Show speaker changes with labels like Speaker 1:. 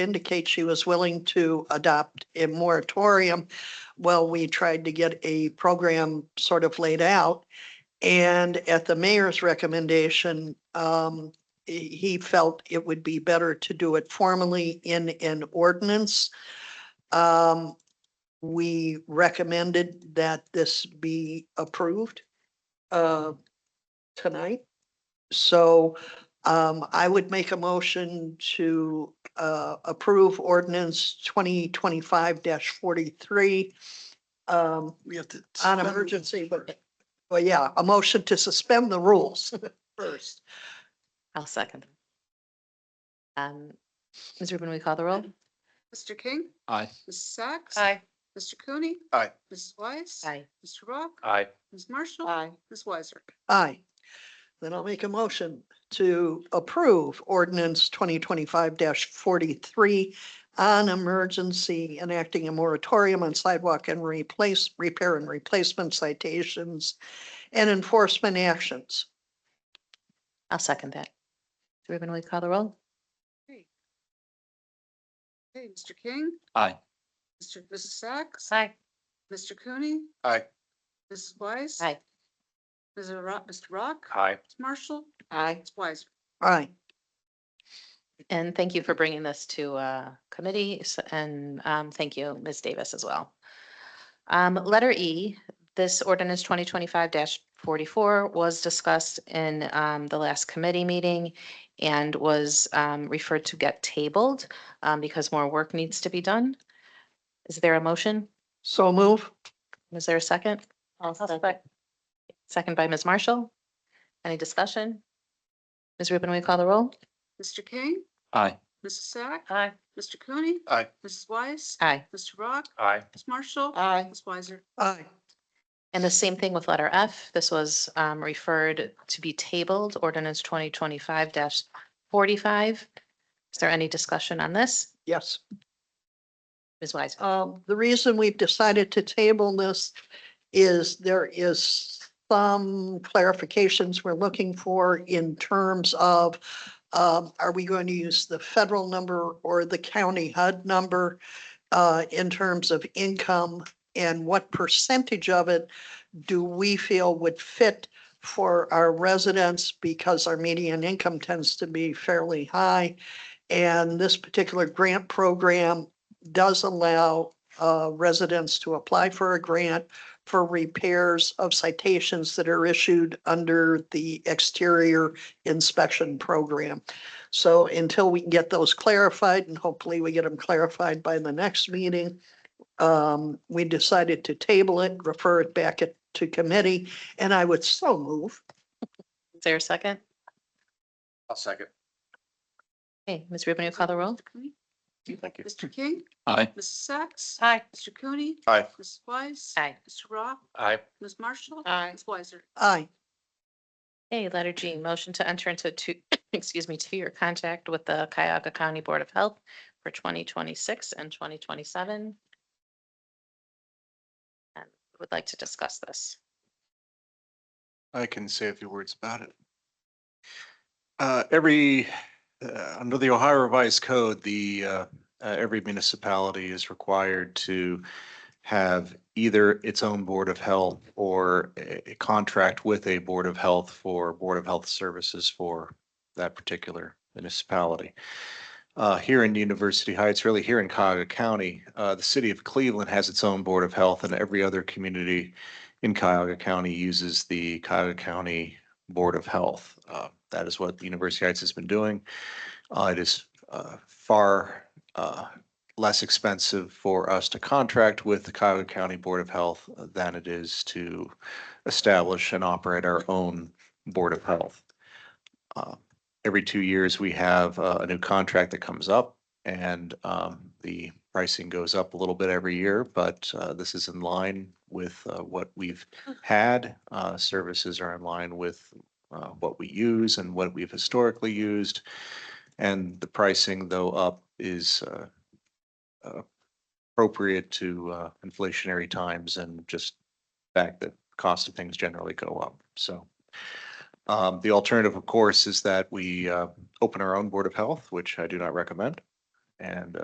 Speaker 1: indicate she was willing to adopt a moratorium. Well, we tried to get a program sort of laid out. And at the mayor's recommendation, um, he he felt it would be better to do it formally in an ordinance. Um, we recommended that this be approved uh, tonight. So um, I would make a motion to uh, approve ordinance twenty twenty-five forty-three um,
Speaker 2: We have to.
Speaker 1: on
Speaker 2: suspend-
Speaker 1: emergency, but, well, yeah, a motion to suspend the rules first.
Speaker 3: I'll second. Um, Ms. Rubin, we call the roll?
Speaker 4: Mr. King?
Speaker 2: Aye.
Speaker 4: Mrs. Sacks? Mr. Cooney?
Speaker 2: Aye.
Speaker 4: Mrs. Weiss?
Speaker 3: Aye.
Speaker 4: Mr. Rock?
Speaker 2: Aye.
Speaker 4: Ms. Marshall?
Speaker 3: Aye.
Speaker 4: Ms. Weiser?
Speaker 1: Aye. Then I'll make a motion to approve ordinance twenty twenty-five forty-three on emergency enacting a moratorium on sidewalk and replace, repair and replacement citations and enforcement actions.
Speaker 3: I'll second that. Ms. Rubin, we call the roll?
Speaker 4: Okay, Mr. King?
Speaker 2: Aye.
Speaker 4: Mr. Mrs. Sacks?
Speaker 3: Aye.
Speaker 4: Mr. Cooney?
Speaker 2: Aye.
Speaker 4: Mrs. Weiss?
Speaker 3: Aye.
Speaker 4: Mr. Rock, Mr. Rock?
Speaker 2: Aye.
Speaker 4: Ms. Marshall?
Speaker 3: Aye.
Speaker 4: Ms. Weiser?
Speaker 1: Aye.
Speaker 3: And thank you for bringing this to uh, committee s- and um, thank you, Ms. Davis, as well. Um, Letter E, this ordinance 2025-44 was discussed in um, the last committee meeting and was um, referred to get tabled um, because more work needs to be done. Is there a motion?
Speaker 1: So move.
Speaker 3: Is there a second? Sec- Second by Ms. Marshall. Any discussion? Ms. Rubin, will you call the roll?
Speaker 4: Mr. King?
Speaker 2: Aye.
Speaker 4: Mrs. Sack?
Speaker 3: Aye.
Speaker 4: Mr. Cooney?
Speaker 2: Aye.
Speaker 4: Mrs. Weiss?
Speaker 3: Aye.
Speaker 4: Mr. Rock?
Speaker 2: Aye.
Speaker 4: Ms. Marshall?
Speaker 3: Aye.
Speaker 4: Ms. Weiser?
Speaker 1: Aye.
Speaker 3: And the same thing with letter F. This was um, referred to be tabled, ordinance twenty twenty-five forty-five. Is there any discussion on this?
Speaker 1: Yes.
Speaker 3: Ms. Wise?
Speaker 1: Um, the reason we've decided to table this is there is some clarifications we're looking for in terms of um, are we going to use the federal number or the county HUD number uh, in terms of income? And what percentage of it do we feel would fit for our residents? Because our median income tends to be fairly high. And this particular grant program does allow uh, residents to apply for a grant for repairs of citations that are issued under the exterior inspection program. So until we can get those clarified, and hopefully we get them clarified by the next meeting, um, we decided to table it, refer it back it- to committee, and I would so move.
Speaker 3: Is there a second?
Speaker 2: I'll second.
Speaker 3: Okay, Ms. Rubin, you call the roll?
Speaker 4: Mr. Cooney?
Speaker 2: Thank you.
Speaker 4: Mr. King?
Speaker 2: Aye.
Speaker 4: Mrs. Sacks?
Speaker 3: Aye.
Speaker 4: Mr. Cooney?
Speaker 2: Aye.
Speaker 4: Mrs. Weiss?
Speaker 3: Aye.
Speaker 4: Mr. Rock?
Speaker 2: Aye.
Speaker 4: Ms. Marshall?
Speaker 3: Aye.
Speaker 4: Ms. Weiser?
Speaker 1: Aye.
Speaker 3: Okay, letter G, motion to enter into two, excuse me, two-year contract with the Cuyahoga County Board of Health for twenty twenty-six and twenty twenty-seven. And would like to discuss this.
Speaker 5: I can say a few words about it. Uh, every, uh, under the Ohio Revised Code, the, uh, uh, every municipality is required to have either its own Board of Health or a, a contract with a Board of Health for Board of Health services for that particular municipality. Uh, here in University Heights, really here in Cuyahoga County, uh, the city of Cleveland has its own Board of Health and every other community in Cuyahoga County uses the Cuyahoga County Board of Health. Uh, That is what the University Heights has been doing. Uh, It is uh, far uh, less expensive for us to contract with the Cuyahoga County Board of Health than it is to establish and operate our own Board of Health. Uh, Every two years, we have uh, a new contract that comes up and um, the pricing goes up a little bit every year, but uh, this is in line with uh, what we've had. Uh, Services are in line with uh, what we use and what we've historically used. And the pricing, though up, is uh, uh, appropriate to uh, inflationary times and just fact that cost of things generally go up. So um, the alternative, of course, is that we uh, open our own Board of Health, which I do not recommend and